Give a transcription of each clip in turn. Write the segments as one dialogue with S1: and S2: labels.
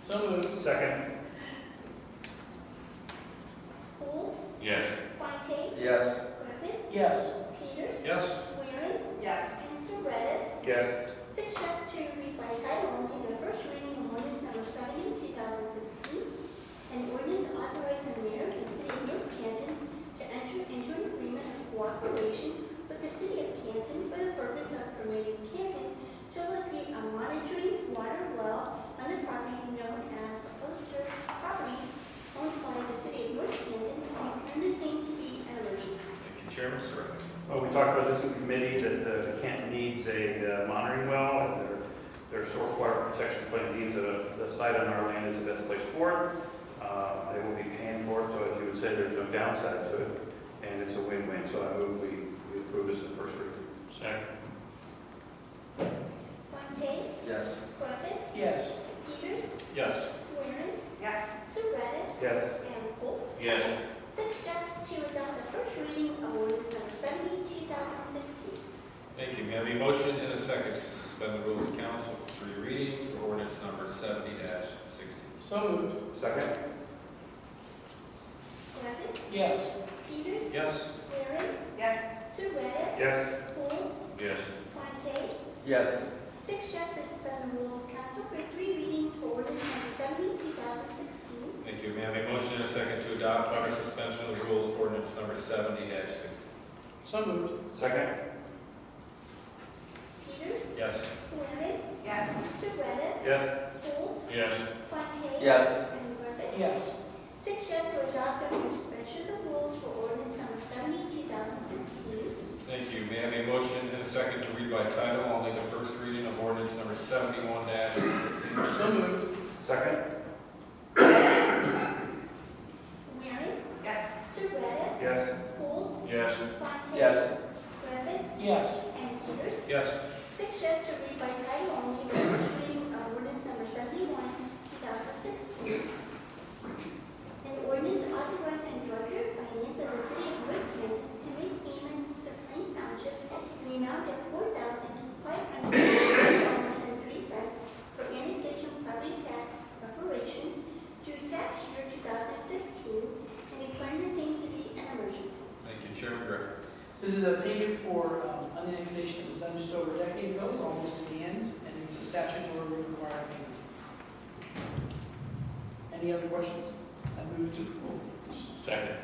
S1: So moved.
S2: Second.
S3: Coles,
S2: Yes.
S3: Fontaine,
S4: Yes.
S3: Griffin,
S1: Yes.
S3: Peters,
S2: Yes.
S3: Waring,
S5: Yes.
S3: and Surratt.
S2: Yes.
S3: Six yes to read by title only the first reading of ordinance number 70, 2016, an ordinance authorizing the mayor of the city of North Canton to enter into an agreement of cooperation with the city of Canton for the purpose of permitting Canton to locate a monitoring water well on the property known as the Oster property owned by the city of North Canton and declaring the same to be an emergency.
S4: Thank you, Chairman Surratt.
S2: Well, we talked about this in committee, that uh, Canton needs a uh, monitoring well, and their, their source water protection plan needs a, the site on our land is the best place for it. Uh, They will be paying for it, so as you would say, there's no downside to it, and it's a win-win, so I move we we approve this in first reading. Second.
S3: Fontaine,
S4: Yes.
S3: Griffin,
S1: Yes.
S3: Peters,
S2: Yes.
S3: Waring,
S5: Yes.
S3: Surratt,
S2: Yes.
S3: and Folds.
S2: Yes.
S3: Six yes to adopt the first reading of ordinance number 70, 2016.
S4: Thank you. May I have a motion and a second to suspend the rules of council for three readings for ordinance number seventy sixteen?
S1: So moved.
S2: Second.
S3: Griffin,
S1: Yes.
S3: Peters,
S4: Yes.
S3: Waring,
S5: Yes.
S3: Surratt,
S2: Yes.
S3: Folds,
S4: Yes.
S3: Fontaine,
S4: Yes.
S3: six yes to suspend the rules of council for three readings for ordinance number 70, 2016.
S4: Thank you. May I have a motion and a second to adopt under suspension of the rules ordinance number seventy sixteen?
S1: So moved.
S2: Second.
S3: Peters,
S4: Yes.
S3: Waring,
S5: Yes.
S3: Surratt,
S2: Yes.
S3: Folds,
S2: Yes.
S3: Fontaine.
S4: Yes.
S3: And Griffin.
S1: Yes.
S3: Six yes to adopt under suspension of the rules for ordinance number 70, 2016.
S4: Thank you. May I have a motion and a second to read by title only the first reading of ordinance number seventy-one sixteen?
S1: So moved.
S2: Second.
S3: Waring,
S5: Yes.
S3: Surratt,
S2: Yes.
S3: Folds,
S2: Yes.
S3: Fontaine. Griffin
S1: Yes.
S3: and Peters.
S4: Yes.
S3: Six yes to read by title only, the first reading of ordinance number 71, 2016. An ordinance authorizing director of finance of the city of North Canton to make payments to Plain Township in the amount of $4,503.03 for annexation property tax reparations through tax year 2015 and declaring the same to be an emergency.
S4: Thank you, Chairman Griffin.
S1: This is a payment for um, an annexation that was done just over a decade ago, we're almost to the end, and it's a statutory required payment. Any other questions? I move to approve.
S2: Second.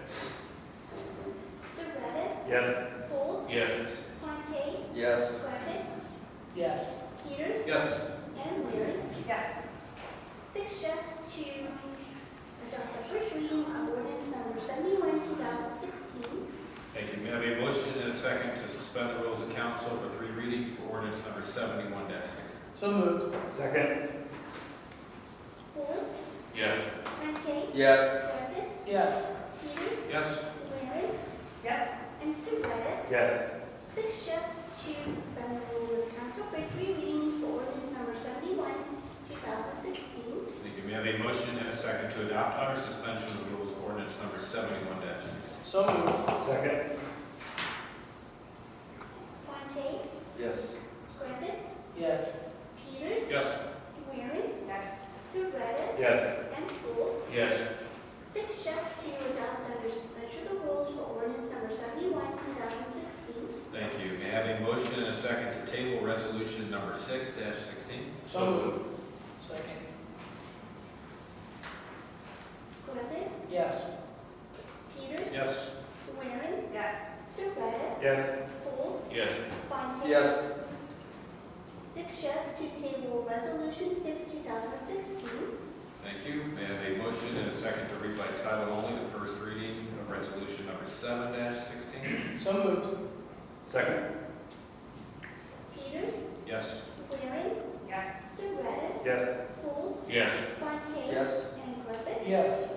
S3: Surratt,
S2: Yes.
S3: Folds,
S2: Yes.
S3: Fontaine,
S4: Yes.
S3: Griffin,
S1: Yes.
S3: Peters
S4: Yes.
S3: and Waring.
S5: Yes.
S3: Six yes to adopt the first reading of ordinance number 71, 2016.
S4: Thank you. May I have a motion and a second to suspend the rules of council for three readings for ordinance number seventy-one sixteen?
S1: So moved.
S2: Second.
S3: Folds,
S2: Yes.
S3: Fontaine,
S4: Yes.
S3: Griffin,
S1: Yes.
S3: Peters,
S4: Yes.
S3: Waring,
S5: Yes.
S3: and Surratt.
S2: Yes.
S3: Six yes to suspend the rules of council for three readings for ordinance number 71, 2016.
S4: Thank you. May I have a motion and a second to adopt under suspension of the rules ordinance number seventy-one sixteen?
S1: So moved.
S2: Second.
S3: Fontaine,
S4: Yes.
S3: Griffin,
S1: Yes.
S3: Peters,
S4: Yes.
S3: Waring,
S5: Yes.
S3: Surratt,
S2: Yes.
S3: and Folds.
S2: Yes.
S3: Six yes to adopt under suspension of the rules for ordinance number 71, 2016.
S4: Thank you. May I have a motion and a second to table resolution number six sixteen?
S1: So moved. Second.
S3: Griffin,
S1: Yes.
S3: Peters,
S4: Yes.
S3: Waring,
S5: Yes.
S3: Surratt,
S2: Yes.
S3: Folds,
S2: Yes.
S3: Fontaine. Six yes to table resolution 6, 2016.
S4: Thank you. May I have a motion and a second to read by title only the first reading of resolution number seven sixteen?
S1: So moved.
S2: Second.
S3: Peters,
S4: Yes.
S3: Waring,
S5: Yes.
S3: Surratt,
S2: Yes.
S3: Folds,
S2: Yes.
S3: Fontaine.
S4: Yes.
S3: And Griffin.
S1: Yes.